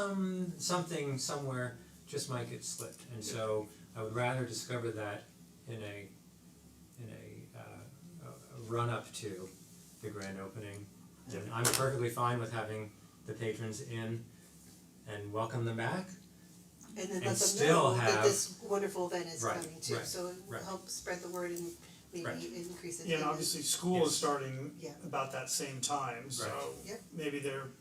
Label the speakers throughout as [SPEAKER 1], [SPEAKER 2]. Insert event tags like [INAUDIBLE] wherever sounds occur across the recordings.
[SPEAKER 1] some something somewhere just might get slipped, and so I would rather discover that in a in a uh a- a run up to the grand opening. And I'm perfectly fine with having the patrons in and welcome them back.
[SPEAKER 2] And
[SPEAKER 1] and
[SPEAKER 2] then let them
[SPEAKER 1] still
[SPEAKER 2] know that
[SPEAKER 1] have-
[SPEAKER 2] this wonderful event is
[SPEAKER 1] Right,
[SPEAKER 2] coming too,
[SPEAKER 1] right,
[SPEAKER 2] so it
[SPEAKER 1] right.
[SPEAKER 2] will help spread the word and maybe
[SPEAKER 1] Right.
[SPEAKER 2] increase attendance.
[SPEAKER 3] Yeah, and obviously school
[SPEAKER 1] Yes.
[SPEAKER 3] is starting
[SPEAKER 2] Yeah.
[SPEAKER 3] about that same time, so
[SPEAKER 1] Right.
[SPEAKER 2] Yep.
[SPEAKER 3] maybe they're,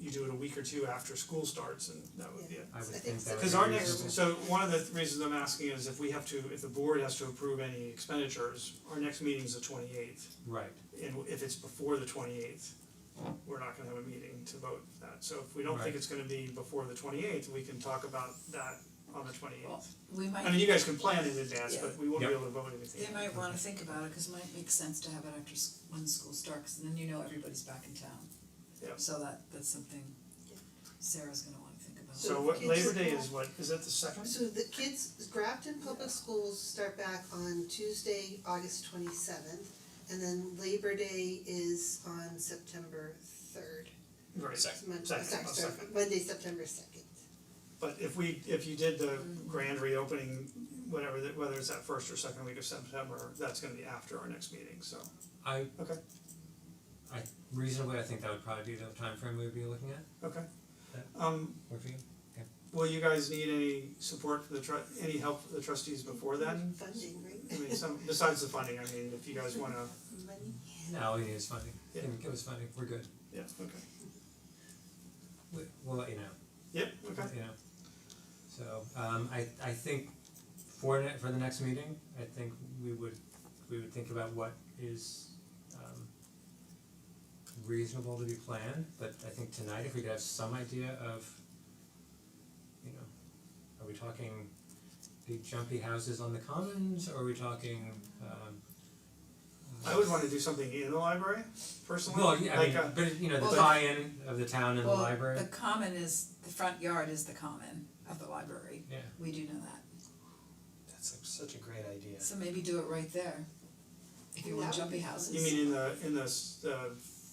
[SPEAKER 3] you do it a week or two after school starts and that would be
[SPEAKER 2] Yeah.
[SPEAKER 3] it.
[SPEAKER 1] I would
[SPEAKER 2] I think
[SPEAKER 1] think
[SPEAKER 2] so.
[SPEAKER 1] that would
[SPEAKER 3] Cause
[SPEAKER 1] be
[SPEAKER 3] our next,
[SPEAKER 1] reasonable.
[SPEAKER 3] so one of the reasons I'm asking is if we have to, if the board has to approve any expenditures, our next meeting's the twenty eighth.
[SPEAKER 1] Right,
[SPEAKER 3] And if it's before the twenty eighth, we're not gonna have a meeting to vote that, so if we don't
[SPEAKER 1] Right.
[SPEAKER 3] think it's gonna be before the twenty eighth, we can talk about that on the twenty eighth.
[SPEAKER 4] Well, We
[SPEAKER 3] I mean,
[SPEAKER 4] might,
[SPEAKER 3] you guys can plan in advance,
[SPEAKER 4] Yeah.
[SPEAKER 3] but we won't be
[SPEAKER 1] Yep.
[SPEAKER 3] able to vote anything.
[SPEAKER 4] they might wanna think about it, cause it might make sense to have it after s- when school starts, and then you know everybody's back in town.
[SPEAKER 3] Yeah.
[SPEAKER 4] So that that's something Sarah's gonna wanna think about.
[SPEAKER 3] So what Labor Day is what, is that the second?
[SPEAKER 2] So the kids, Grafton Public Schools start back on Tuesday, August twenty seventh, and then Labor Day is on September third.
[SPEAKER 3] Right.
[SPEAKER 2] Mon-
[SPEAKER 3] Second,
[SPEAKER 2] sorry,
[SPEAKER 3] oh,
[SPEAKER 2] sorry,
[SPEAKER 3] second.
[SPEAKER 2] Monday, September second.
[SPEAKER 3] But if we, if you did the grand reopening, whatever, that whether it's that first or second week of September, that's gonna be after our next meeting, so.
[SPEAKER 1] I
[SPEAKER 3] Okay.
[SPEAKER 1] I reasonably I think that would probably be the time frame we would be looking at,
[SPEAKER 3] Okay. Um,
[SPEAKER 1] work for you?
[SPEAKER 3] will you guys need any support for the tru- any help for the trustees before then?
[SPEAKER 2] Funding,
[SPEAKER 3] I mean,
[SPEAKER 2] right?
[SPEAKER 3] some, besides the funding, I mean, if you guys wanna,
[SPEAKER 2] Money.
[SPEAKER 1] No, it is funding,
[SPEAKER 3] Yeah.
[SPEAKER 1] give us funding, we're good,
[SPEAKER 3] yeah, okay.
[SPEAKER 1] we we'll let you know.
[SPEAKER 3] Yep, okay,
[SPEAKER 1] you know. So um I I think for ne- for the next meeting, I think we would we would think about what is um reasonable to be planned, but I think tonight if we could have some idea of you know, are we talking big jumpy houses on the commons or are we talking um uh,
[SPEAKER 3] I would wanna do something in the library personally,
[SPEAKER 1] well, yeah, I
[SPEAKER 3] like,
[SPEAKER 1] mean,
[SPEAKER 3] uh,
[SPEAKER 1] but you know,
[SPEAKER 4] Well,
[SPEAKER 1] the
[SPEAKER 4] the-
[SPEAKER 1] tie-in of the town and the
[SPEAKER 4] Well,
[SPEAKER 1] library,
[SPEAKER 4] the common is, the front yard is the common of the library,
[SPEAKER 1] yeah.
[SPEAKER 4] we do know that,
[SPEAKER 5] That's like such a great idea.
[SPEAKER 4] so maybe do it right there. If you
[SPEAKER 2] Well,
[SPEAKER 4] want
[SPEAKER 2] that would
[SPEAKER 4] jumpy
[SPEAKER 2] be fun.
[SPEAKER 4] houses.
[SPEAKER 3] you mean in the, in the, s- the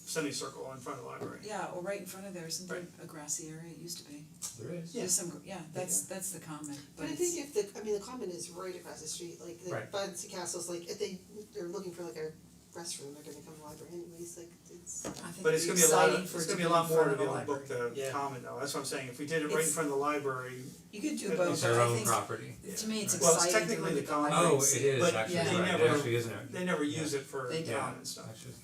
[SPEAKER 3] semicircle in front of the library?
[SPEAKER 4] Yeah, or right in front of there, isn't there a grassy area, it used to be,
[SPEAKER 1] There is.
[SPEAKER 3] Yeah.
[SPEAKER 4] there's some, gr- yeah, that's that's the common,
[SPEAKER 2] But
[SPEAKER 4] but
[SPEAKER 2] I
[SPEAKER 4] it's.
[SPEAKER 2] think if the, I mean, the common is right across the street, like the
[SPEAKER 1] Right.
[SPEAKER 2] Buds Castle's like, if they, they're looking for like a restroom, they're gonna come to the library anyways, like it's.
[SPEAKER 4] I think
[SPEAKER 3] But it's
[SPEAKER 4] it'd
[SPEAKER 3] gonna
[SPEAKER 4] be
[SPEAKER 3] be a lot,
[SPEAKER 4] exciting
[SPEAKER 3] of- it's
[SPEAKER 4] for it to
[SPEAKER 3] gonna
[SPEAKER 4] be
[SPEAKER 3] be a lot
[SPEAKER 4] in
[SPEAKER 3] more to be
[SPEAKER 4] front of the
[SPEAKER 3] able to book
[SPEAKER 4] library.
[SPEAKER 3] the
[SPEAKER 5] Yeah.
[SPEAKER 3] common though, that's what I'm saying, if we did it right in
[SPEAKER 4] It's-
[SPEAKER 3] front of the library,
[SPEAKER 4] You could do
[SPEAKER 3] It's
[SPEAKER 4] both,
[SPEAKER 1] their
[SPEAKER 4] but I
[SPEAKER 1] own
[SPEAKER 4] think,
[SPEAKER 1] property.
[SPEAKER 4] to me, it's
[SPEAKER 3] Well, it's
[SPEAKER 4] exciting to
[SPEAKER 3] technically
[SPEAKER 4] look
[SPEAKER 3] the
[SPEAKER 4] at
[SPEAKER 3] common-
[SPEAKER 4] library
[SPEAKER 1] Oh,
[SPEAKER 4] and see-
[SPEAKER 1] it is
[SPEAKER 3] But
[SPEAKER 1] actually,
[SPEAKER 4] yeah.
[SPEAKER 1] you're
[SPEAKER 4] they
[SPEAKER 1] right, it
[SPEAKER 3] never-
[SPEAKER 1] actually isn't it?
[SPEAKER 3] they never
[SPEAKER 1] Yeah.
[SPEAKER 3] use it for
[SPEAKER 4] They don't.
[SPEAKER 3] common stuff.
[SPEAKER 1] Actually,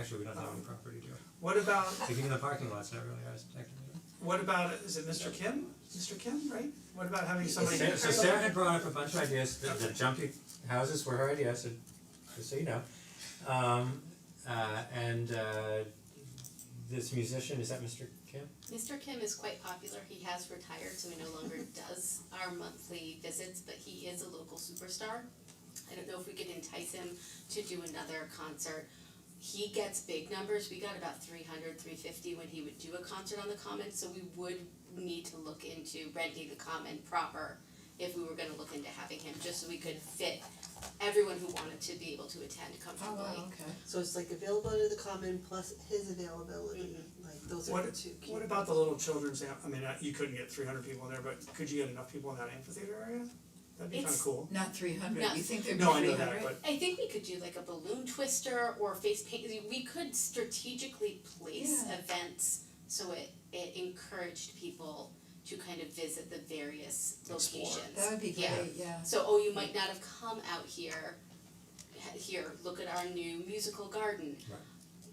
[SPEAKER 1] actually, we don't have any property, do we?
[SPEAKER 3] What about,
[SPEAKER 1] Like even the parking lot's not really ours technically.
[SPEAKER 3] what about, is it Mr. Kim, Mr. Kim, right? What about having somebody?
[SPEAKER 1] Sarah- So Sarah had brought up a bunch of ideas, the the jumpy houses were her idea, so just so you know. Um uh and uh this musician, is that Mr. Kim?
[SPEAKER 6] Mr. Kim is quite popular. He has retired, so he no longer [LAUGHS] does our monthly visits, but he is a local superstar. I don't know if we could entice him to do another concert. He gets big numbers. We got about 300, 350 when he would do a concert on the Common, so we would need to look into renting the Common proper if we were going to look into having him, just so we could fit everyone who wanted to be able to attend
[SPEAKER 4] Oh,
[SPEAKER 6] comfortably.
[SPEAKER 4] wow, okay.
[SPEAKER 2] So it's like availability of the common plus his availability,
[SPEAKER 6] Mm-hmm.
[SPEAKER 2] like those are the
[SPEAKER 3] What,
[SPEAKER 2] two key.
[SPEAKER 3] what about the little children's, am- I mean, uh, you couldn't get three hundred people in there, but could you get enough people in that amphitheater area? That'd be kinda
[SPEAKER 6] It's-
[SPEAKER 3] cool.
[SPEAKER 4] Not three hundred,
[SPEAKER 6] No.
[SPEAKER 4] you think there'd be
[SPEAKER 3] No, I
[SPEAKER 4] three
[SPEAKER 3] know that,
[SPEAKER 4] hundred?
[SPEAKER 3] but
[SPEAKER 6] I think we could do like a balloon twister or face paint, we could strategically place
[SPEAKER 4] Yeah.
[SPEAKER 6] events so it it encouraged people to kind of visit the various
[SPEAKER 5] Explore.
[SPEAKER 6] locations.
[SPEAKER 4] That would be
[SPEAKER 6] Yeah.
[SPEAKER 4] great, yeah.
[SPEAKER 6] So, oh, you might not have come out here, ha- here, look at our new musical garden.
[SPEAKER 1] Right.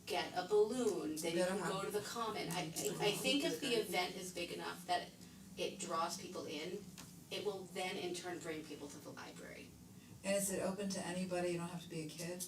[SPEAKER 6] Get a balloon, then you
[SPEAKER 4] Better
[SPEAKER 6] can go
[SPEAKER 4] have-
[SPEAKER 6] to the common, I I I think if the event is big enough that it draws people in, it will then in turn bring people to the library.
[SPEAKER 4] And is it open to anybody, you don't have to be a kid?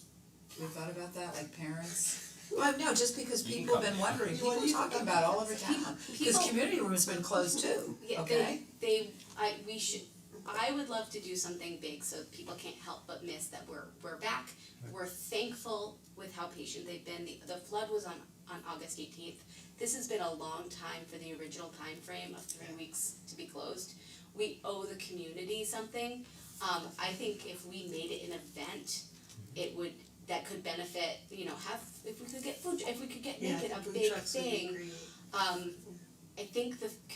[SPEAKER 4] We thought about that, like parents? Well, no, just because
[SPEAKER 5] You can
[SPEAKER 4] people have
[SPEAKER 5] come.
[SPEAKER 4] been wondering, people
[SPEAKER 2] do you
[SPEAKER 4] talking
[SPEAKER 2] think?
[SPEAKER 4] about all over town, this
[SPEAKER 6] people-
[SPEAKER 4] community room's been closed too,
[SPEAKER 6] Yeah,
[SPEAKER 4] okay?
[SPEAKER 6] they, they, I, we should, I would love to do something big so people can't help but miss that we're, we're back. We're thankful with how patient they've been, the, the flood was on, on August eighteenth. This has been a long time for the original time frame of three weeks to be closed. We owe the community something, um, I think if we made it an event, it would, that could benefit, you know, have, if we could get food, if we could get,
[SPEAKER 2] Yeah,
[SPEAKER 6] make it a
[SPEAKER 2] food
[SPEAKER 6] big
[SPEAKER 2] trucks would be
[SPEAKER 6] thing,
[SPEAKER 2] great.
[SPEAKER 6] um, I think the